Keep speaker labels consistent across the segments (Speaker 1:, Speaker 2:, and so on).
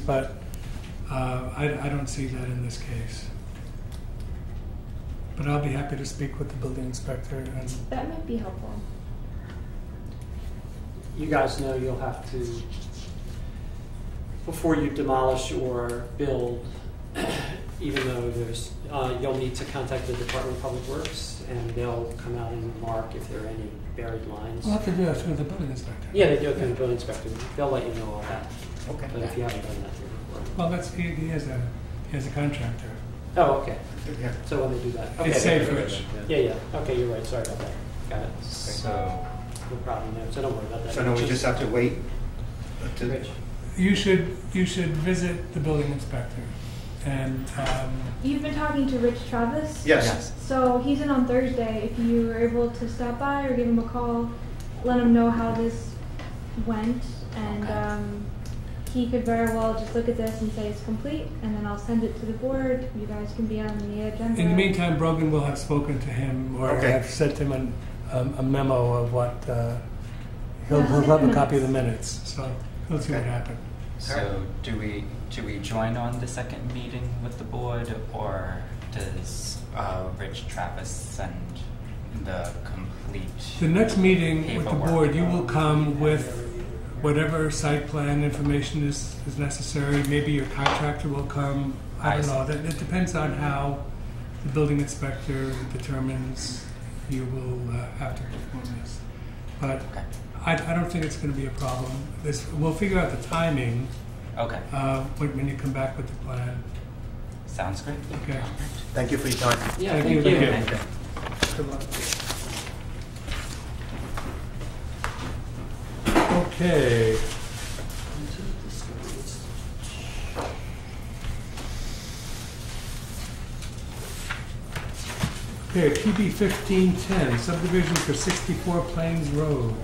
Speaker 1: but uh, I, I don't see that in this case. But I'll be happy to speak with the building inspector and,
Speaker 2: That might be helpful.
Speaker 3: you guys know you'll have to, before you demolish or build, even though there's, uh, you'll need to contact the Department of Public Works and they'll come out and mark if there are any buried lines.
Speaker 1: we'll have to do that through the building inspector.
Speaker 3: Yeah, they do it through the building inspector. They'll let you know all that.
Speaker 4: Okay.
Speaker 3: But if you haven't done that through before.
Speaker 1: Well, that's, he, he is a, he is a contractor.
Speaker 3: Oh, okay.
Speaker 4: Yeah.
Speaker 3: So when they do that.
Speaker 1: It's
Speaker 3: okay.
Speaker 1: safe, Rich.
Speaker 3: Yeah, yeah. Okay, you're right. Sorry about that. Got it.
Speaker 4: So,
Speaker 3: No problem there. So don't worry about that.
Speaker 4: so now we just have to wait to,
Speaker 3: Rich.
Speaker 1: You should, you should visit the building inspector and, um,
Speaker 2: You've been talking to Rich Travis?
Speaker 4: yes,
Speaker 2: So he's in on Thursday. If you were able to stop by or give him a call, let him know how this went, and
Speaker 4: Okay.
Speaker 2: um, he could very well just look at this and say it's complete, and then I'll send it to the board. You guys can be on the agenda.
Speaker 1: in the meantime, Brogan will have spoken to him or
Speaker 4: Okay.
Speaker 1: have sent him an, um, a memo of what, uh, he'll,
Speaker 2: Yeah,
Speaker 1: he'll
Speaker 2: I'll
Speaker 1: have
Speaker 2: get
Speaker 1: a
Speaker 2: the
Speaker 1: copy of the minutes, so he'll see what
Speaker 4: Okay.
Speaker 1: happened.
Speaker 5: So do we, do we join on the second meeting with the board or does uh, Rich Travis send
Speaker 1: The
Speaker 5: the complete?
Speaker 1: next meeting with the
Speaker 5: Paperwork.
Speaker 1: board, you will come with whatever site plan information is, is necessary. Maybe your contractor will come, I
Speaker 5: I
Speaker 1: don't
Speaker 5: see.
Speaker 1: know, that, it depends on how the building inspector determines you will uh, have to perform this. But
Speaker 5: Okay,
Speaker 1: I, I don't think it's gonna be a problem. This, we'll figure out the timing,
Speaker 5: okay,
Speaker 1: uh, when, when you come back with the plan,
Speaker 5: sounds great.
Speaker 1: okay?
Speaker 4: thank you for your time.
Speaker 3: Yeah,
Speaker 1: Thank you.
Speaker 3: thank
Speaker 1: Thank
Speaker 3: you.
Speaker 1: you.
Speaker 5: Thank
Speaker 1: Good
Speaker 5: you.
Speaker 1: luck. Okay. Okay, PB fifteen ten, subdivision for sixty-four Plains Road.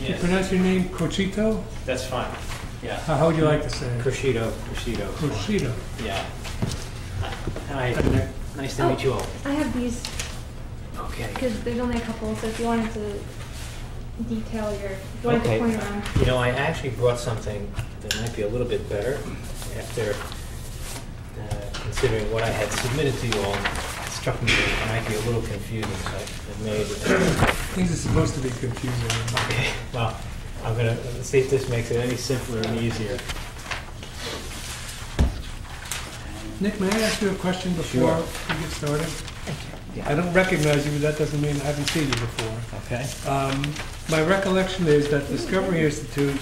Speaker 1: You
Speaker 6: Yes,
Speaker 1: pronounce your name Cochito?
Speaker 6: that's fine. Yeah.
Speaker 1: How how would you like to say it?
Speaker 6: Crescido, crescido.
Speaker 1: Cochito.
Speaker 6: Yeah. Hi,
Speaker 1: Okay.
Speaker 6: nice to meet you all.
Speaker 2: Oh, I have these
Speaker 6: Okay.
Speaker 2: because there's only a couple, so if you wanted to detail your, if you wanted
Speaker 6: Okay.
Speaker 2: to point around.
Speaker 6: You know, I actually brought something that might be a little bit better after uh, considering what I had submitted to you all. It struck me that it might be a little confusing, so I made
Speaker 1: Things are supposed to be confusing.
Speaker 6: Okay, well, I'm gonna, let's see if this makes it any simpler and easier.
Speaker 1: Nick, may I ask you a question before
Speaker 6: Sure.
Speaker 1: we get started? I don't recognize you, but that doesn't mean I haven't seen you before.
Speaker 6: Okay.
Speaker 1: Um, My recollection is that Discovery Institute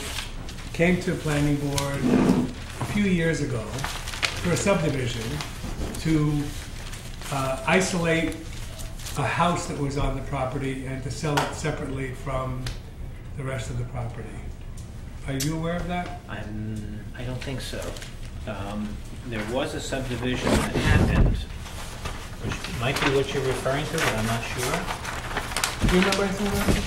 Speaker 1: came to planning board a few years ago for a subdivision to uh, isolate a house that was on the property and to sell it separately from the rest of the property. Are you aware of that?
Speaker 6: I'm, I don't think so. Um, There was a subdivision that happened, which might be what you're referring to, but I'm not sure.
Speaker 1: Do you remember anything about this?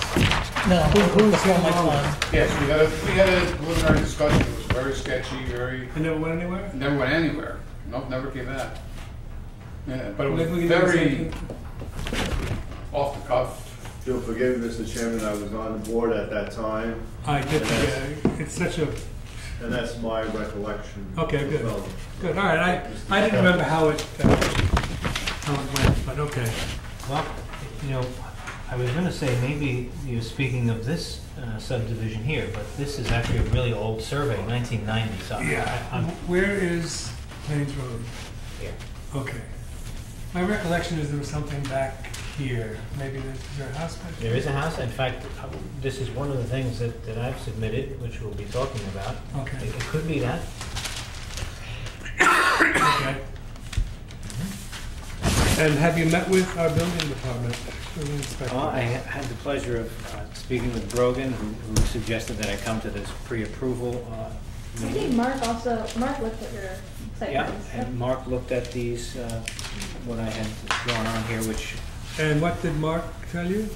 Speaker 7: No,
Speaker 1: Who- who was
Speaker 7: not
Speaker 1: on
Speaker 7: my
Speaker 1: the-
Speaker 7: time.
Speaker 8: Yes, we had a, we had a preliminary discussion, it was very sketchy, very,
Speaker 1: I never went anywhere?
Speaker 8: never went anywhere, nope, never came back. Yeah, but it was
Speaker 1: Maybe we can do the same
Speaker 8: very
Speaker 1: thing.
Speaker 8: off the cuff.
Speaker 9: You'll forgive me, Mr. Chairman, I was on the board at that time,
Speaker 1: I did, uh, it's such a,
Speaker 9: and that's my recollection.
Speaker 1: Okay, good.
Speaker 9: Well,
Speaker 1: good, all right, I, I didn't remember how it, uh, how it went, but okay.
Speaker 6: Well, you know, I was gonna say, maybe you're speaking of this uh, subdivision here, but this is actually a really old survey, nineteen ninety, so. I- I-
Speaker 1: Yeah,
Speaker 6: I'm-
Speaker 1: Um, where is Plains Road?
Speaker 6: Here.
Speaker 1: Okay. My recollection is there was something back here, maybe this is your house back
Speaker 6: There is a house, in fact, I- this is one of the things that, that I've submitted, which we'll be talking about. It
Speaker 1: Okay,
Speaker 6: it could be that,
Speaker 1: okay.
Speaker 6: Mm-hmm.
Speaker 1: And have you met with our building department, building inspector?
Speaker 6: Well, Oh, I ha- had the pleasure of uh, speaking with Brogan, who who suggested that I come to this pre-approval uh,
Speaker 2: I think
Speaker 6: meeting.
Speaker 2: Mark also, Mark looked at your site
Speaker 6: Yeah,
Speaker 2: plans.
Speaker 6: and Mark looked at these, uh, what I had drawn on here, which,
Speaker 1: And what did Mark tell you?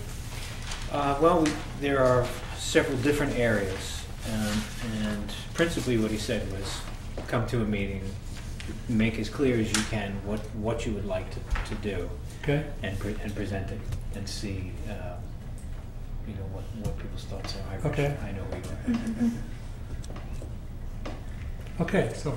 Speaker 6: uh, well, we- there are several different areas. um, And principally, what he said was, come to a meeting, make as clear as you can what, what you would like to to do.
Speaker 1: Okay,
Speaker 6: and, pre- and present it and see, uh, you know, what, what people's thoughts are. I-
Speaker 1: Okay.
Speaker 6: I know we are.
Speaker 1: okay, so